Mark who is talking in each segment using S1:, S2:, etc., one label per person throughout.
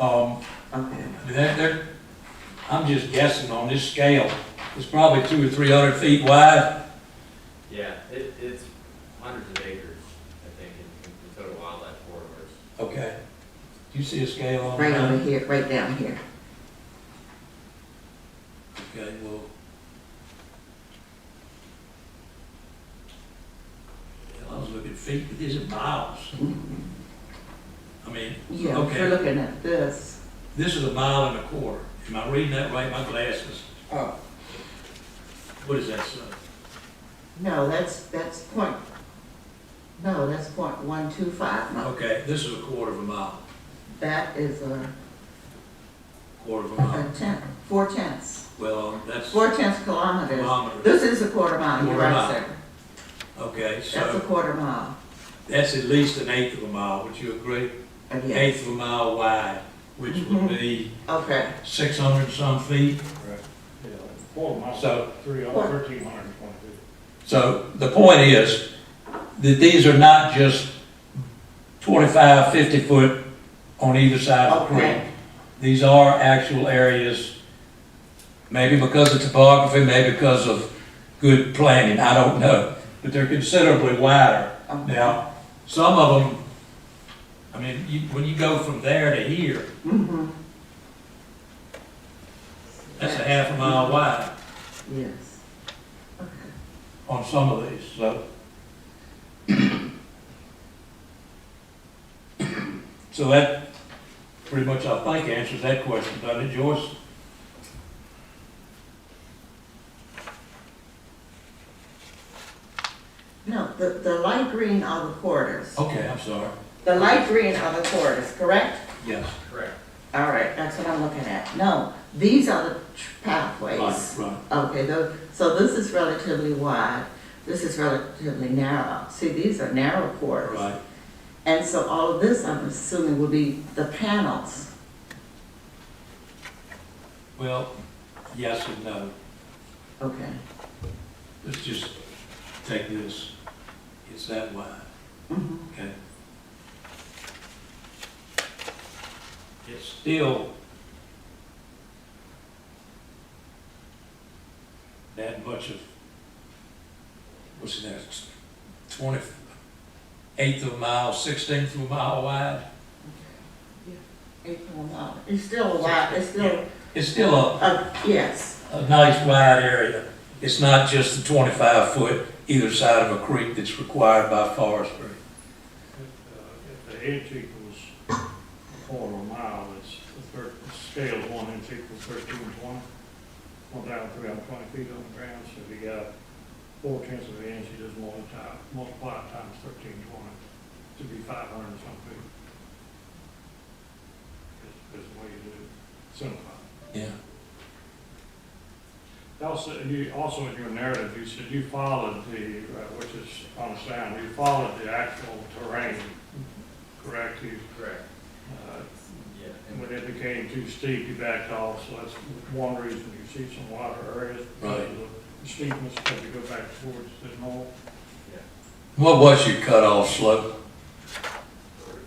S1: Um,
S2: Okay.
S1: that, that, I'm just guessing on this scale, it's probably two or three hundred feet wide.
S3: Yeah, it, it's hundreds of acres, I think, in, in total wildlife corridors.
S1: Okay. Do you see a scale on
S2: Right over
S1: that?
S2: here, right down here.
S1: Okay, well. Hell, I was looking feet, but these are miles. I mean,
S2: Yeah, if
S1: Okay.
S2: we're looking at this.
S1: this is a mile and a quarter. Am I reading that right? My glasses,
S2: Oh.
S1: what is that, son?
S2: No, that's, that's point, no, that's point one two five miles.
S1: Okay, this is a quarter of a mile,
S2: That is a,
S1: quarter of a
S2: a
S1: mile.
S2: tenth, four tenths,
S1: Well, um, that's
S2: four tenths kilometers.
S1: kilometers.
S2: This is a quarter mile, you're
S1: Quarter
S2: right,
S1: mile.
S2: sir.
S1: Okay,
S2: That's a
S1: so
S2: quarter mile,
S1: that's at least an eighth of a mile, would you agree?
S2: Uh,
S1: Eighth
S2: yes.
S1: of a mile wide, which would be
S2: Okay,
S1: six hundred some feet.
S4: Yeah, Four miles,
S1: So-
S4: three,
S2: What?
S4: thirteen hundred and twenty feet.
S1: So the point is that these are not just 25, 50 foot on either side of the creek.
S2: okay,
S1: These are actual areas, maybe because of topography, maybe because of good planning, I don't know. But they're considerably wider.
S2: okay.
S1: Now, some of them, I mean, you, when you go from there to here,
S2: Mhm.
S1: that's a half a mile wide
S2: Yes. Okay.
S1: on some of these, so. So that pretty much, I think, answers that question, doesn't it, Joyce?
S2: No, the, the light green are the quarters.
S1: Okay, I'm sorry.
S2: The light green are the quarters, correct?
S1: Yes.
S3: Correct.
S2: All right, that's what I'm looking at. No, these are the tr-
S1: Right,
S2: pathways.
S1: right.
S2: Okay, tho- so this is relatively wide, this is relatively narrow. See, these are narrow quarters.
S1: Right,
S2: And so all of this, I'm assuming, will be the panels.
S1: well, yes and no.
S2: Okay.
S1: Let's just take this, it's that wide,
S2: Mhm.
S1: okay? It's still that much of, what's that, twenty, eighth of a mile, sixteenth of a mile wide?
S2: Eight point nine. It's still a wide, it's still,
S1: It's still a,
S2: uh, yes,
S1: a nice wide area. It's not just the twenty-five foot either side of a creek that's required by forestry.
S4: If, uh, If the inch equals a quarter of a mile, it's the thir the scale of one inch equals thirteen twenty. One thousand three hundred twenty feet on the ground, so if you got four tenths of an inch, you just multiply, multiply it times thirteen twenty to be five hundred and something feet. Is, is the way you do it, simplify.
S1: Yeah.
S4: Also, you, also in your narrative, you said you followed the, uh, which is on the sound, you followed the actual terrain, correct? You,
S3: Correct,
S4: uh,
S3: yeah. and-
S4: when it became too steep, you backed off, so that's one reason you see some water areas. because of the Steepness, because you go back towards the north.
S1: What was your cutoff slope?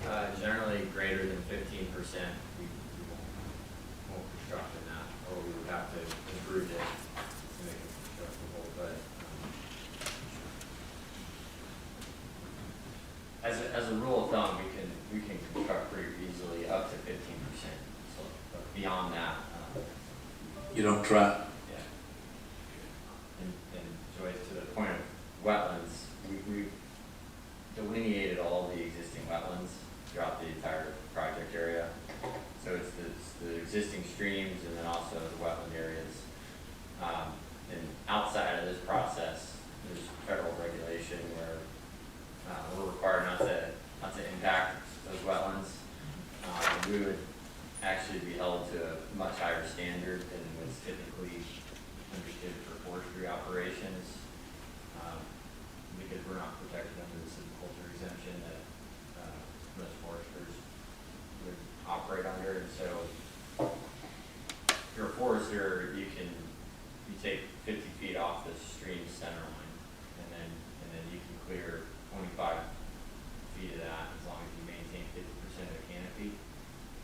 S3: Uh, generally greater than fifteen percent, we, we won't, won't construct in that, or we would have to improve it to make it constructible, but. um, As a, as a rule of thumb, we can, we can construct pretty easily up to fifteen percent, so, but beyond that, um,
S1: You don't try.
S3: Yeah. And, and Joyce, to the point of wetlands, we, we delineated all the existing wetlands throughout the entire project area. So it's the, it's the existing streams and then also the wetland areas. Um, and outside of this process, there's federal regulation where, uh, we're required not to, not to impact those wetlands. Uh, we would actually be held to a much higher standard than was typically understood for forestry operations. um, Because we're not protected under the silviculture exemption that, uh, most foresters would operate under, and so if you're a forester, you can, you take fifty feet off the stream center line, and then, and then you can clear twenty-five feet of that, and